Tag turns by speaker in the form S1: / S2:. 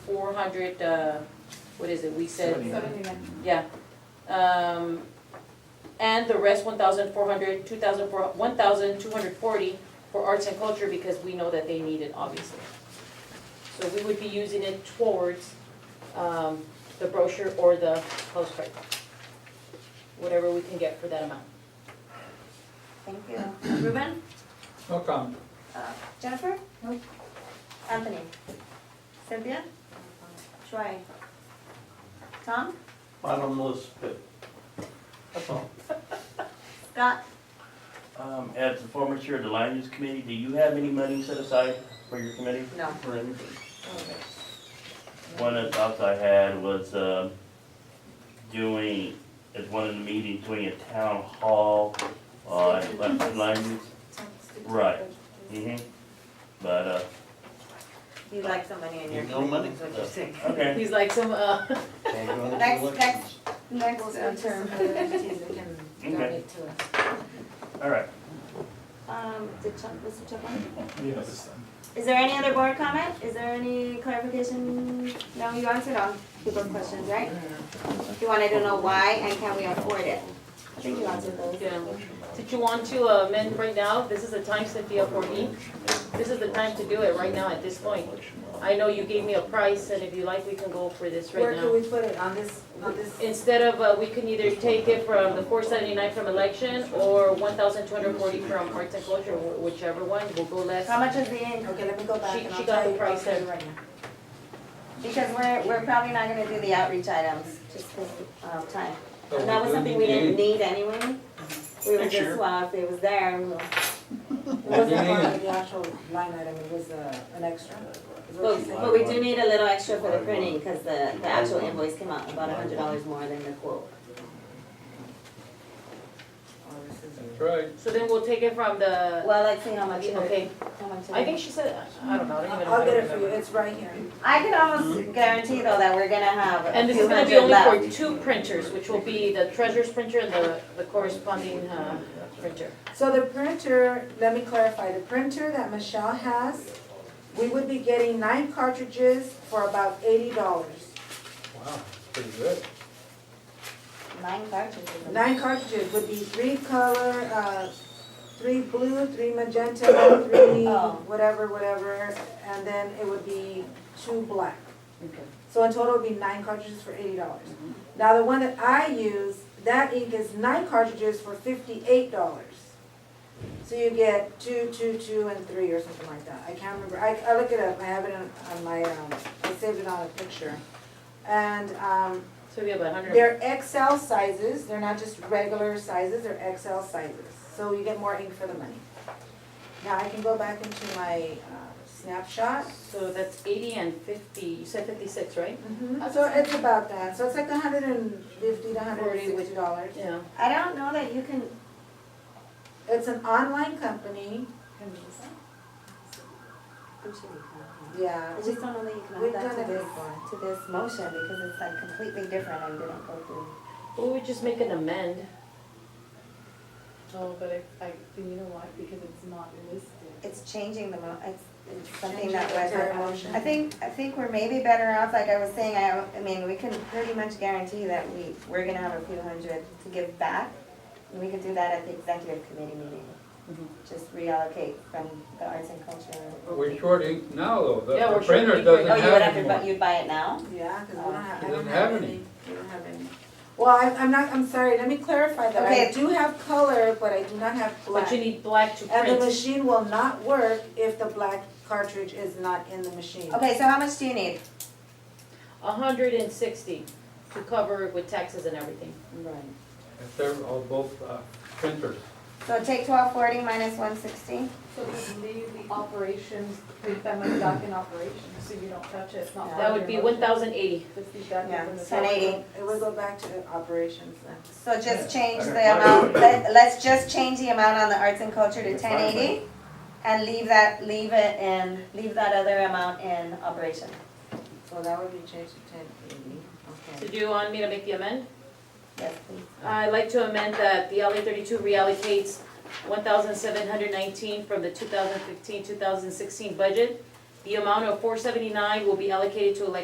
S1: four hundred, uh, what is it, we said,
S2: Seventy-nine.
S1: yeah. Um, and the rest, one thousand four hundred, two thousand four, one thousand two hundred forty for arts and culture because we know that they need it, obviously. So we would be using it towards, um, the brochure or the postcard. Whatever we can get for that amount.
S3: Thank you. Ruben?
S4: No comment.
S3: Uh, Jennifer?
S2: No.
S3: Anthony? Cynthia? Troy? Tom?
S5: Bottomless pit. That's all.
S3: Scott?
S5: Um, as the former chair of the land use committee, do you have any money set aside for your committee?
S3: No.
S5: For anything? One of the thoughts I had was, uh, doing, at one of the meetings, doing a town hall on land land use. Right. Mm-hmm. But, uh,
S3: You'd like some money in your.
S5: No money.
S3: is what you're saying.
S5: okay.
S1: He's like some, uh,
S3: Next, next.
S2: Next uh, term, other entities that can donate to us.
S5: All right.
S3: Um, did Chuck, Mr. Chuck want?
S4: Yes.
S3: Is there any other board comment? Is there any clarification? No, you answered all people's questions, right? You wanted to know why and can we afford it? I think you answered those.
S1: yeah. Did um, you want to amend right now? This is the time Cynthia for me. This is the time to do it right now at this point. I know you gave me a price and if you like, we can go for this
S2: Where
S1: right
S2: can
S1: now.
S2: we put it, on this, on this?
S1: Instead of, uh, we can either take it from the four seventy-nine from election or one thousand two hundred forty from arts and culture, wh- whichever one, we'll go less.
S3: How much is the in?
S2: Okay, let me go back
S1: She-
S2: and
S1: she
S2: I'll
S1: got
S2: tell
S1: the
S2: you, I'll
S1: price
S2: tell you
S1: there.
S2: right now.
S3: Because we're, we're probably not gonna do the outreach items, just because of um, time.
S4: Oh,
S3: That was something we didn't need anyway. We were
S4: Next year.
S3: just, well, if it was there, we were.
S2: It wasn't part of the actual line item, it was uh, an extra. is what
S3: But,
S2: she said.
S3: but we do need a little extra for the printing, because the, the actual invoice came out about a hundred dollars more than the quote.
S2: Oh, this is-
S4: That's right.
S1: So then we'll take it from the,
S3: Well, let's see how much. it-
S1: okay,
S3: how much it
S1: I
S3: is.
S1: think she said, I don't know, I don't even know.
S2: I'll get it for you, it's right here.
S3: I can almost guarantee though that we're gonna have
S1: And
S3: a
S1: this
S3: few
S1: is gonna be
S3: hundred left.
S1: only for two printers, which will be the treasurer's printer and the, the corresponding, uh, printer.
S2: So the printer, let me clarify, the printer that Michelle has, we would be getting nine cartridges for about eighty dollars.
S4: Wow, pretty good.
S3: Nine cartridges.
S2: Nine cartridges would be three color, uh, three blue, three magenta, three
S3: Oh.
S2: whatever, whatever, and then it would be two black.
S1: Okay.
S2: So in total, it would be nine cartridges for eighty dollars. Now, the one that I use, that ink is nine cartridges for fifty-eight dollars. So you get two, two, two, and three, or something like that. I can't remember. I, I look it up. I have it on, on my, um, I saved it on a picture. And, um,
S1: So we have a hundred,
S2: they're XL sizes, they're not just regular sizes, they're XL sizes, so you get more ink for the money. Now I can go back into my uh, snapshot.
S1: so that's eighty and fifty, you said fifty-six, right?
S2: So it's about that, so it's like hundred and fifty to hundred and sixty dollars.
S1: Yeah.
S3: I don't know that you can,
S2: It's an online company,
S3: I'm sure you
S2: yeah.
S3: can. I just don't know that you can
S2: We've
S3: add that
S2: done it
S3: to this,
S2: before.
S3: to this motion because it's like completely different and didn't go through.
S1: Well, we just make an amend.
S6: Oh, but I, I, then you know why? Because it's not listed.
S3: It's changing the mo, it's, it's something
S2: Changing
S3: that
S2: the
S3: was. uh,
S2: entire motion.
S3: I think, I think we're maybe better off, like I was saying, I, I mean, we can pretty much guarantee that we, we're gonna have a few hundred to give back. And we could do that at the executive committee meeting. Mm-hmm.
S1: Mhm.
S3: Just reallocate from the arts and culture.
S4: We're short ink now, though. The-
S1: Yeah,
S4: The
S1: we're short ink
S4: printer
S1: right
S4: doesn't
S3: Oh, you would have
S4: have
S3: to, bu-
S4: anymore.
S3: you'd buy it now?
S2: Yeah, cause we don't have, I
S4: Doesn't
S2: don't
S4: have
S2: have
S4: any.
S2: any, we don't have any. Well, I, I'm not, I'm sorry, let me clarify that, I
S3: Okay.
S2: do have color, but I do not have black.
S1: But you need black to
S2: And the
S1: print.
S2: machine will not work if the black cartridge is not in the machine.
S3: Okay, so how much do you need?
S1: A hundred and sixty to cover with taxes and everything.
S2: Right.
S4: If they're all both uh, printers.
S3: So take twelve forty minus one sixty?
S6: So just leave the operations, leave that money back in operations, so you don't touch it, it's not.
S1: That would be one thousand eighty.
S6: Just leave that
S3: Yeah,
S6: in the.
S3: ten eighty.
S2: It would go back to the operations then.
S3: So just change the
S5: Okay.
S3: amount, let, let's just change the amount on the arts and culture to
S5: It's
S3: ten
S5: fine,
S3: eighty and leave that, leave it in, leave that other amount in operation.
S2: So that would be changed to ten eighty,
S1: So
S2: okay.
S1: do you want me to make the amend?
S3: Yes, please.
S1: I'd like to amend that the LA thirty-two reallocates one thousand seven hundred nineteen from the 2015-2016 budget. The amount of four seventy-nine will be allocated to elections